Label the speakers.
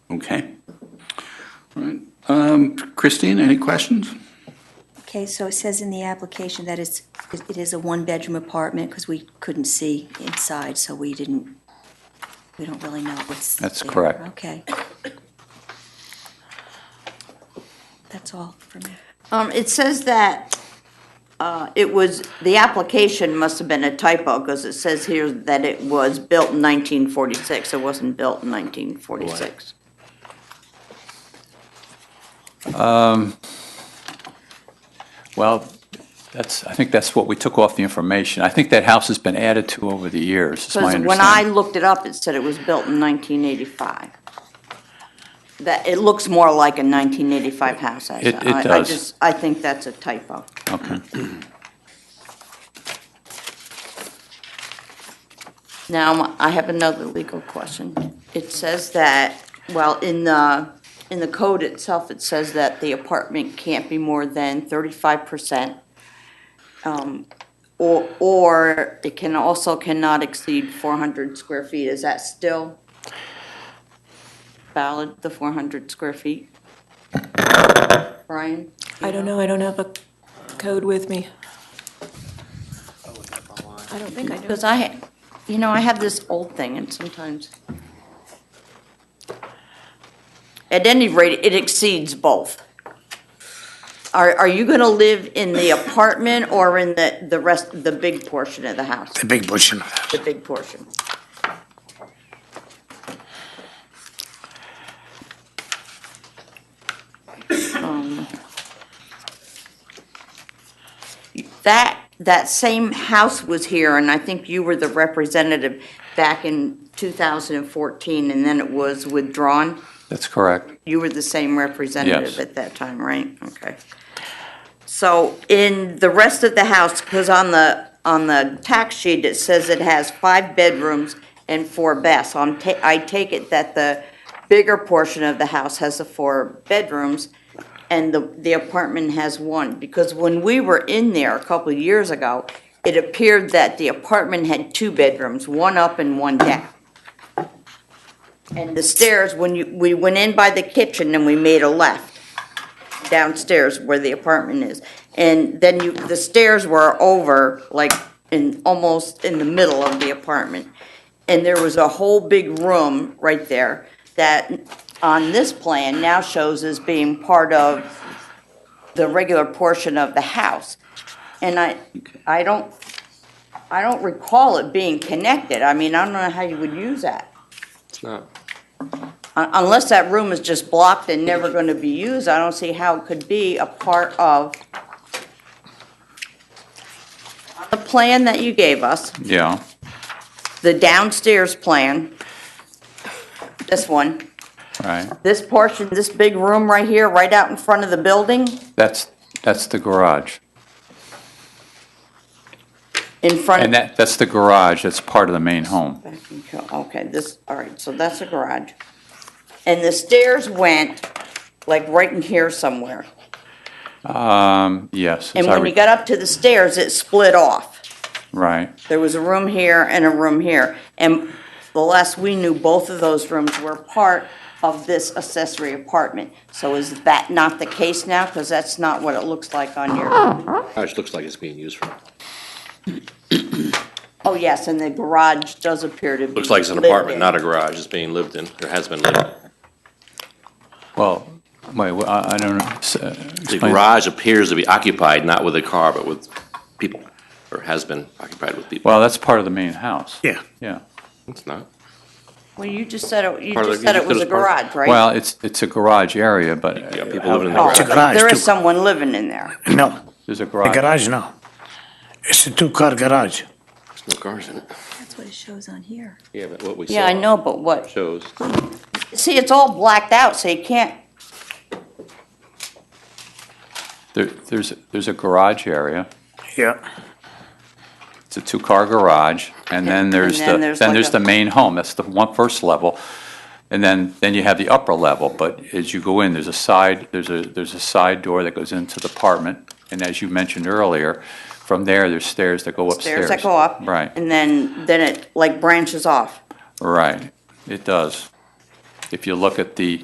Speaker 1: Okay. All right. Um, Christine, any questions?
Speaker 2: Okay, so it says in the application that it's, it is a one-bedroom apartment, because we couldn't see inside, so we didn't, we don't really know what's.
Speaker 1: That's
Speaker 2: there.
Speaker 1: correct.
Speaker 2: Okay. That's all for me.
Speaker 3: Um, it says that, uh, it was, the application must have been a typo, because it says here that it was built in nineteen forty-six, it wasn't built in nineteen forty-six.
Speaker 1: Well, that's, I think that's what we took off the information. I think that house has been added to over the years, is my
Speaker 3: Because when I
Speaker 1: understanding.
Speaker 3: looked it up, it said it was built in nineteen eighty-five. That, it looks more like a nineteen eighty-five house, I,
Speaker 1: It- it
Speaker 3: I- I
Speaker 1: does.
Speaker 3: just, I think that's a typo.
Speaker 1: Okay.
Speaker 3: Now, I have another legal question. It says that, well, in the, in the code itself, it says that the apartment can't be more than thirty-five percent. um, Or, or it can also cannot exceed four hundred square feet. Is that still valid, the four hundred square feet? Brian? do you
Speaker 4: I don't know, I don't have a code with me. I don't think I do.
Speaker 3: Because I, you know, I have this old thing, and sometimes, at any rate, it exceeds both. Are, are you gonna live in the apartment or in the, the rest, the big portion of the house,
Speaker 5: The big bush.
Speaker 3: the big portion? Um, That, that same house was here, and I think you were the representative back in 2014, and then it was withdrawn.
Speaker 1: That's correct.
Speaker 3: You were the same
Speaker 1: Yes.
Speaker 3: representative at that time, right? Okay. So in the rest of the house, because on the, on the tax sheet, it says it has five bedrooms and four baths. So I'm ta, I take it that the bigger portion of the house has the four bedrooms and the, the apartment has one. Because when we were in there a couple of years ago, it appeared that the apartment had two bedrooms, one up and one down. And the stairs, when you, we went in by the kitchen and we made a left downstairs where the apartment is. And then you, the stairs were over, like, in, almost in the middle of the apartment. And there was a whole big room right there that on this plan now shows as being part of the regular portion of the house. And I, I don't, I don't recall it being connected. I mean, I don't know how you would use that.
Speaker 6: It's not.
Speaker 3: Un- Unless that room is just blocked and never going to be used, I don't see how it could be a part of the plan that you gave us,
Speaker 1: Yeah.
Speaker 3: the downstairs plan, this one,
Speaker 1: Right.
Speaker 3: this portion, this big room right here, right out in front of the building,
Speaker 1: That's, that's the garage.
Speaker 3: in front.
Speaker 1: And that, that's the garage. That's part of the main home.
Speaker 3: Back and go- Okay, this, all right, so that's a garage. And the stairs went like right in here somewhere.
Speaker 1: Um, yes. as
Speaker 3: And
Speaker 1: I
Speaker 3: when
Speaker 1: re-
Speaker 3: you got up to the stairs, it split off.
Speaker 1: Right.
Speaker 3: There was a room here and a room here. And the last we knew, both of those rooms were part of this accessory apartment. So is that not the case now? Because that's not what it looks like on your,
Speaker 6: Gosh, looks like it's being used for,
Speaker 3: oh, yes, and the garage does appear to be.
Speaker 6: looks like it's an
Speaker 3: lived
Speaker 6: apartment,
Speaker 3: in.
Speaker 6: not a garage. It's being lived in, or has been lived in.
Speaker 1: Well, wait, well, I I don't know. S- uh,
Speaker 6: The
Speaker 1: explain-
Speaker 6: garage appears to be occupied, not with a car, but with people, or has been occupied with people.
Speaker 1: Well, that's part of the main house.
Speaker 5: Yeah.
Speaker 1: Yeah.
Speaker 6: It's not.
Speaker 3: Well, you just said, it. you
Speaker 6: Part of
Speaker 3: just
Speaker 6: the-
Speaker 3: said
Speaker 6: you
Speaker 3: it was a
Speaker 6: just said it's part
Speaker 3: garage, right?
Speaker 1: Well, it's, it's a garage area, but.
Speaker 6: Yeah, people
Speaker 1: how-
Speaker 6: living in the
Speaker 1: how-
Speaker 3: Oh,
Speaker 5: It's a garage,
Speaker 3: There
Speaker 5: too.
Speaker 3: is someone living in there.
Speaker 5: No,
Speaker 1: There's a
Speaker 5: the
Speaker 1: garage.
Speaker 5: garage, no. It's a two-car garage.
Speaker 6: There's no cars in it.
Speaker 2: That's what it shows on here.
Speaker 6: Yeah, but what we saw.
Speaker 3: Yeah, I know, but what,
Speaker 6: Shows.
Speaker 3: see, it's all blacked out, so you can't,
Speaker 1: There, there's, there's a garage area.
Speaker 5: Yeah.
Speaker 1: It's a two-car garage, and then there's
Speaker 3: then
Speaker 1: the,
Speaker 3: there's
Speaker 1: then
Speaker 3: like
Speaker 1: there's
Speaker 3: a-
Speaker 1: the main home, that's the one first level. And then, then you have the upper level, but as you go in, there's a side, there's a, there's a side door that goes into the apartment. And as you mentioned earlier, from there, there's stairs that go upstairs.
Speaker 3: stairs that go up.
Speaker 1: Right,
Speaker 3: And then, then it like branches off.
Speaker 1: right. It does. If you look at the